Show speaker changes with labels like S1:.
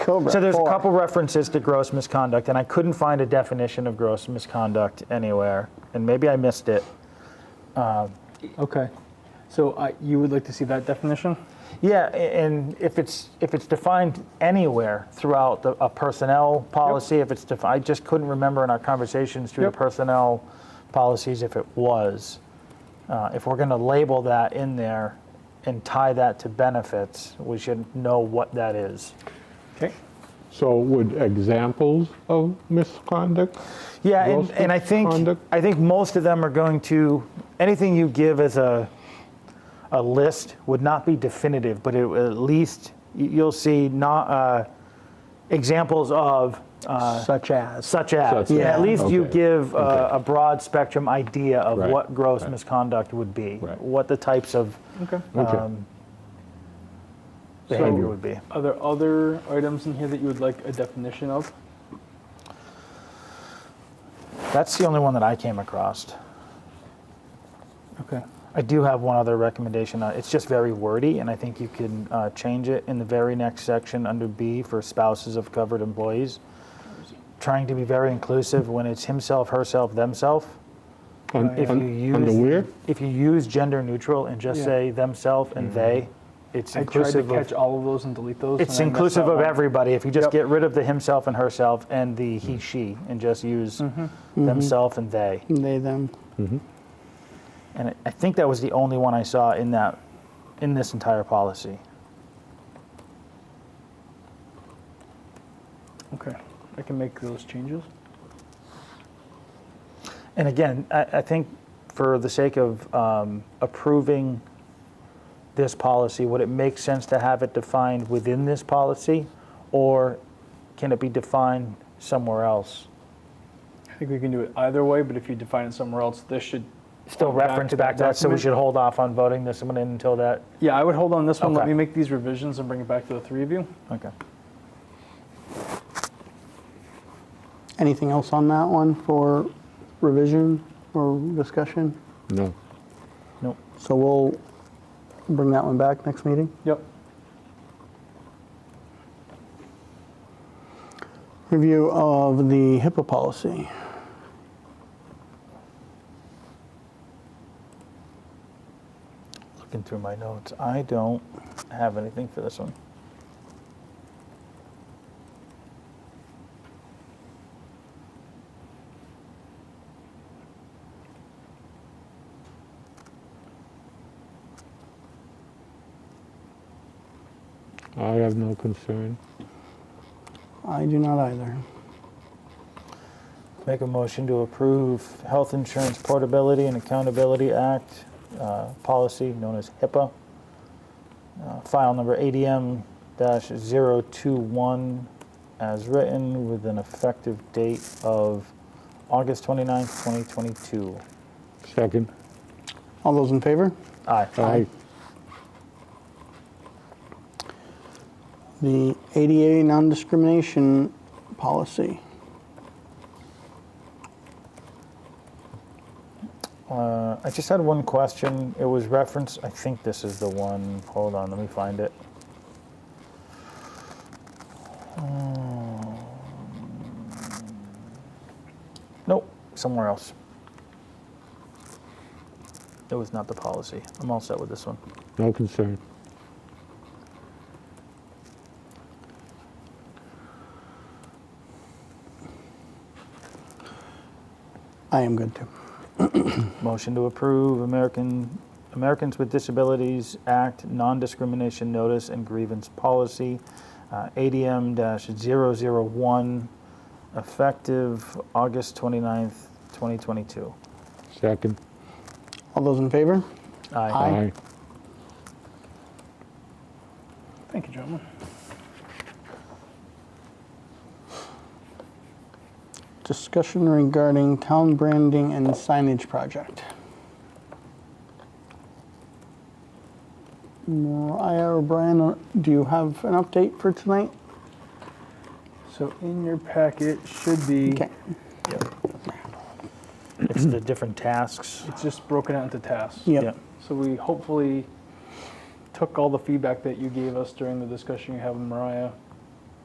S1: Cobra.
S2: So there's a
S1: Four.
S2: couple references to gross misconduct, and I couldn't find a definition of gross misconduct anywhere, and maybe I missed it.
S3: Okay. So I, you would like to see that definition?
S2: Yeah, a- and if it's if it's defined anywhere throughout the, a personnel policy, if it's defined, I just couldn't remember in our conversations through
S3: Yep.
S2: the personnel policies if it was. Uh, if we're going to label that in there and tie that to benefits, we should know what that is.
S3: Okay.
S4: So would examples of misconduct?
S2: Yeah, and,
S4: Gross
S2: and I think
S4: misconduct?
S2: I think most of them are going to anything you give as a a list would not be definitive, but it, will at least y- you'll see not uh, examples of uh,
S1: Such as.
S2: such as.
S4: Such
S2: At
S1: as,
S2: least you
S4: okay,
S2: give uh,
S4: okay.
S2: a broad spectrum idea of
S4: Right,
S2: what gross
S4: right.
S2: misconduct would be,
S4: Right.
S2: what the types of
S3: Okay.
S4: Okay.
S2: um,
S3: So-
S2: behavior would be.
S3: Are there other items in here that you would like a definition of?
S2: That's the only one that I came across.
S3: Okay.
S2: I do have one other recommendation. Uh, It's just very wordy, and I think you can uh, change it in the very next section under B for spouses of covered employees. Trying to be very inclusive when it's himself, herself, themself.
S4: On,
S2: If you
S4: on,
S2: use
S4: on the where?
S2: if you use gender neutral and just
S3: Yeah. Mm-hmm.
S2: say themself and they, it's
S3: I tried to
S2: inclusive
S3: catch
S2: of
S3: all of those and delete those.
S2: it's
S3: and I messed
S2: inclusive
S3: that
S2: of
S3: one.
S2: everybody. If you just
S3: Yep.
S2: get rid of the himself and herself and the he she and just use themself and they.
S1: They, them.
S2: And I- I think that was the only one I saw in that in this entire policy.
S3: Okay. I can make those changes.
S2: And again, I, I think for the sake of um, approving this policy, would it make sense to have it defined within this policy? Or can it be defined somewhere else?
S3: I think we can do it either way, but if you define it somewhere else, this should.
S2: Still
S3: point back
S2: reference
S3: to
S2: back to that, so we
S3: document.
S2: should hold off on voting this one in until that,
S3: Yeah, I would hold on this one. Let
S2: Okay.
S3: me make these revisions and bring it back to the three of you.
S2: okay.
S1: Anything else on that one for revision or discussion?
S4: No.
S2: Nope.
S1: So we'll bring that one back next meeting.
S3: Yep.
S1: Review of the HIPAA policy.
S2: Looking through my notes, I don't have anything for this one.
S4: I have no concern.
S1: I do not either.
S2: Make a motion to approve Health Insurance Portability and Accountability Act uh, policy known as HIPAA. Uh, File number ADM 021 as written with an effective date of August 29th, 2022.
S4: Second.
S1: All those in favor?
S2: Aye.
S4: Aye.
S1: The ADA non-discrimination policy.
S2: Uh, I just had one question. It was referenced, I think this is the one. Hold on, let me find it. Um, Nope, somewhere else. It was not the policy. I'm all set with this one.
S4: No concern.
S1: I am good too.
S2: Motion to approve American, Americans with Disabilities Act Non-Discrimination Notice and Grievance Policy, uh, ADM-001, effective August 29th, 2022.
S4: Second.
S1: All those in favor?
S2: Aye.
S1: Aye.
S4: Aye.
S3: Thank you, gentlemen.
S1: Discussion regarding town branding and signage project. Mariah or Brian, do you have an update for tonight?
S3: So in your packet should be.
S1: Okay.
S2: It's the different tasks.
S3: It's just broken out into tasks.
S1: Yep.
S3: So we hopefully took all the feedback that you gave us during the discussion you have with Mariah